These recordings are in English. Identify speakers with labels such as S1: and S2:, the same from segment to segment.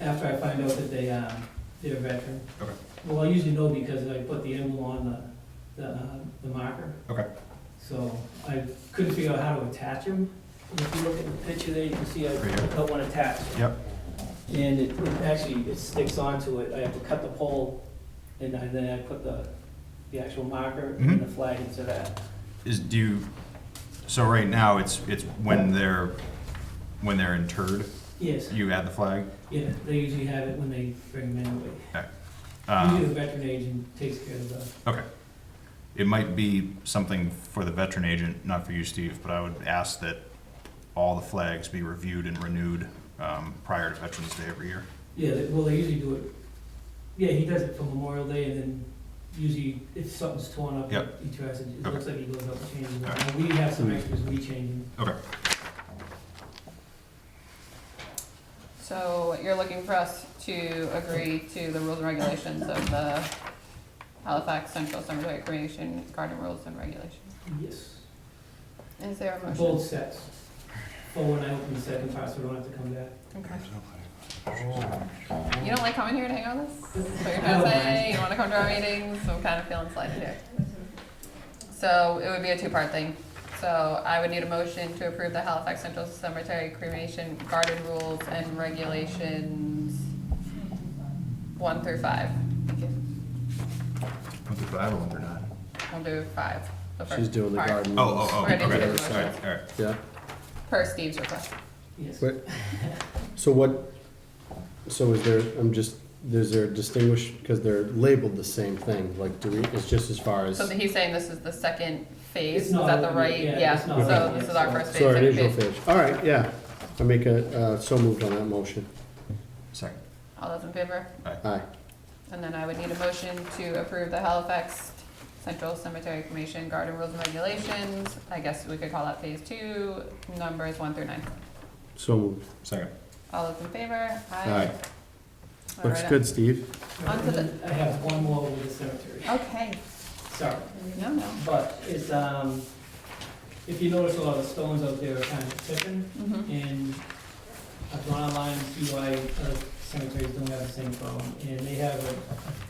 S1: after I find out that they, um, they're a veteran.
S2: Okay.
S1: Well, I usually know because I put the emblem on the, the, uh, the marker.
S2: Okay.
S1: So I couldn't figure out how to attach them. And If you look at the picture there, you can see I
S2: Right here.
S1: put one attached.
S2: Yep.
S1: And it, it actually, it sticks onto it. I have to cut the pole and I- then I put the, the actual marker and
S2: Mhm.
S1: the flag into that.
S2: Is, do you, so right now, it's, it's when they're, when they're interred,
S1: Yes,
S2: you add the flag?
S1: yeah, they usually have it when they bring them in. Usually
S2: Um,
S1: the veteran agent takes care of the
S2: Okay. It might be something for the veteran agent, not for you, Steve, but I would ask that all the flags be reviewed and renewed um, prior to Veterans Day every year.
S1: Yeah, they- well, they usually do it, yeah, he does it for Memorial Day, and then usually if something's torn up,
S2: Yep.
S1: he tries to, it
S2: Okay.
S1: looks like he goes up and changes
S2: All
S1: it. We have some extras, we change them.
S2: Okay.
S3: So you're looking for us to agree to the rules and regulations of the Halifax Central Summer Recreation Garden Rules and Regulations.
S1: Yes,
S3: Is there a
S1: both
S3: motion?
S1: sets. For when I open the second part, so I don't have to come back.
S3: Okay. You don't like coming here to hang out with us? Is what you're
S1: I
S3: trying
S1: don't
S3: to say?
S1: mind.
S3: You wanna come to our meetings? I'm kind of feeling slighted here. So it would be a two-part thing. So I would need a motion to approve the Halifax Central Cemetery Cremation Garden Rules and Regulations one through five. Thank you.
S2: One through five or one through nine?
S3: We'll do five. the
S4: She's
S3: first
S4: doing the
S3: part,
S4: garden.
S2: Oh, oh, oh,
S3: We're
S2: okay,
S3: gonna
S2: all
S3: do
S2: right,
S3: the
S2: all right,
S3: motions.
S2: all right.
S4: Yeah,
S3: Per Steve's request.
S1: Yes.
S4: Wait. so what, so is there, I'm just, is there distinguished, because they're labeled the same thing, like, do we, it's just as far as,
S3: So he's saying this is the second phase,
S1: It's
S3: is
S1: not
S3: that the
S1: open
S3: right?
S1: yet,
S3: Yeah,
S1: it's not
S3: so
S1: open
S3: this
S1: yet,
S3: is our
S1: so-
S3: first phase,
S4: so it
S3: second
S4: is your
S3: phase.
S4: page. All right, yeah, I make a, uh, so moved on that motion,
S2: Second.
S3: All those in favor?
S4: aye.
S3: And then I would need a motion to approve the Halifax Central Cemetery Cremation Garden Rules and Regulations. I guess we could call that phase two, numbers one through nine.
S4: So moved,
S2: Second.
S3: All those in favor?
S4: aye,
S3: All
S4: looks
S3: right.
S4: good, Steve.
S3: Onto the-
S1: I have one more with the cemetery,
S3: Okay,
S1: sorry.
S3: no, no.
S1: But it's, um, if you notice, a lot of stones out there are kind of tipping.
S3: Mhm.
S1: And I've gone online and see why other cemeteries don't have the same problem, and they have a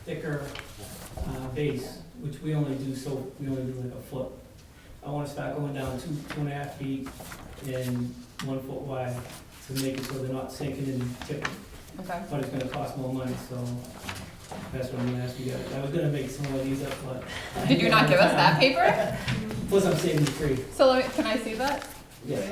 S1: thicker uh, base, which we only do so, we only do like a foot. I wanna start going down two, two and a half feet and one foot wide to make it so they're not sinking and tipping,
S3: Okay,
S1: but it's gonna cost more money, so that's what I'm gonna ask you guys. I was gonna make some of these up, but.
S3: did you not give us that paper?
S1: Plus, I'm saving it free,
S3: So let me, can I see that?
S1: yeah.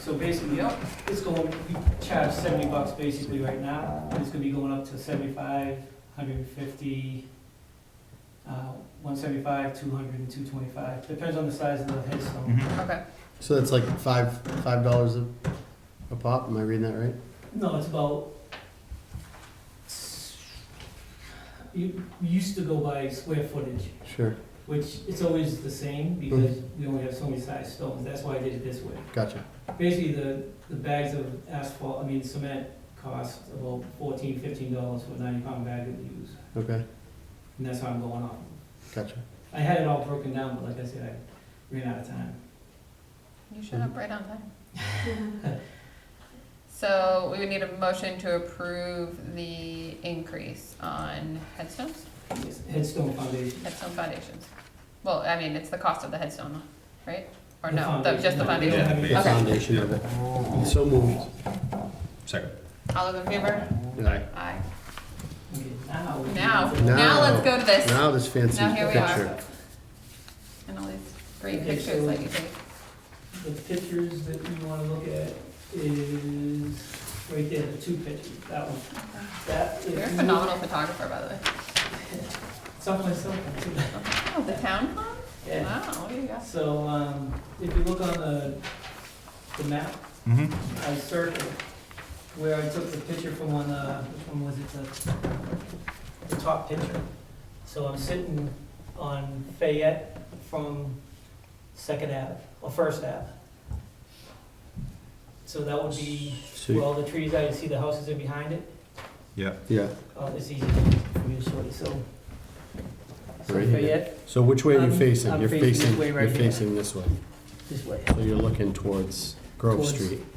S1: So basically,
S3: Yep.
S1: It's going, we charge seventy bucks basically right now, and it's gonna be going up to seventy-five, hundred and fifty, uh, one seventy-five, two hundred, and two twenty-five, depends on the size of the headstone.
S2: Mhm.
S3: Okay,
S4: So that's like five, five dollars a, a pop, am I reading that right?
S1: No, it's about, you, we used to go by square footage,
S4: Sure,
S1: which it's always the same, because we only have so many size stones, that's why I did it this way.
S4: gotcha,
S1: Basically, the, the bags of asphalt, I mean cement cost about fourteen, fifteen dollars for a ninety-pound bag that we use.
S4: okay,
S1: And that's how I'm going on.
S4: gotcha.
S1: I had it all broken down, but like I said, I ran out of time.
S3: you showed up right on time. So we would need a motion to approve the increase on headstones,
S1: Yes, Headstone Foundation.
S3: headstone foundations. Well, I mean, it's the cost of the headstone, right? Or
S1: The
S3: no, the- just the
S1: foundation.
S3: foundation?
S1: Yeah,
S2: the
S4: The
S2: base.
S3: Okay.
S4: foundation of it. So moved,
S2: Second.
S3: All those in favor?
S4: aye.
S3: Aye.
S1: Okay, now. we can-
S3: Now, now
S4: Now.
S3: let's go to this.
S4: Now this fancy
S3: Now here we
S4: picture.
S3: are. And all these great
S1: Okay,
S3: pictures
S1: so-
S3: that you take.
S1: The pictures that you wanna look at is right there, the two pictures, that one. That. if
S3: You're a
S1: you-
S3: phenomenal photographer, by the way.
S1: Something, something.
S3: Oh, the town hall?
S1: Yeah.
S3: Wow, what do you got?
S1: So, um, if you look on the, the map,
S2: Mm-hmm.
S1: I circled where I took the picture from on, uh, which one was it, the, the top picture. So I'm sitting on Fayette from Second Ave, or First Ave. So that would be where
S4: So,
S1: all the trees are, you see the houses are behind it,
S2: Yeah.
S4: yeah,
S1: oh, it's easy for me to show you, so. So
S4: Right here.
S1: Fayette,
S4: so which way are you
S1: I'm-
S4: facing?
S1: Um, I'm
S4: You're
S1: facing this
S4: facing,
S1: way right
S4: you're
S1: here.
S4: facing this way.
S1: this way.
S4: So you're looking towards Grove
S1: towards-
S4: Street.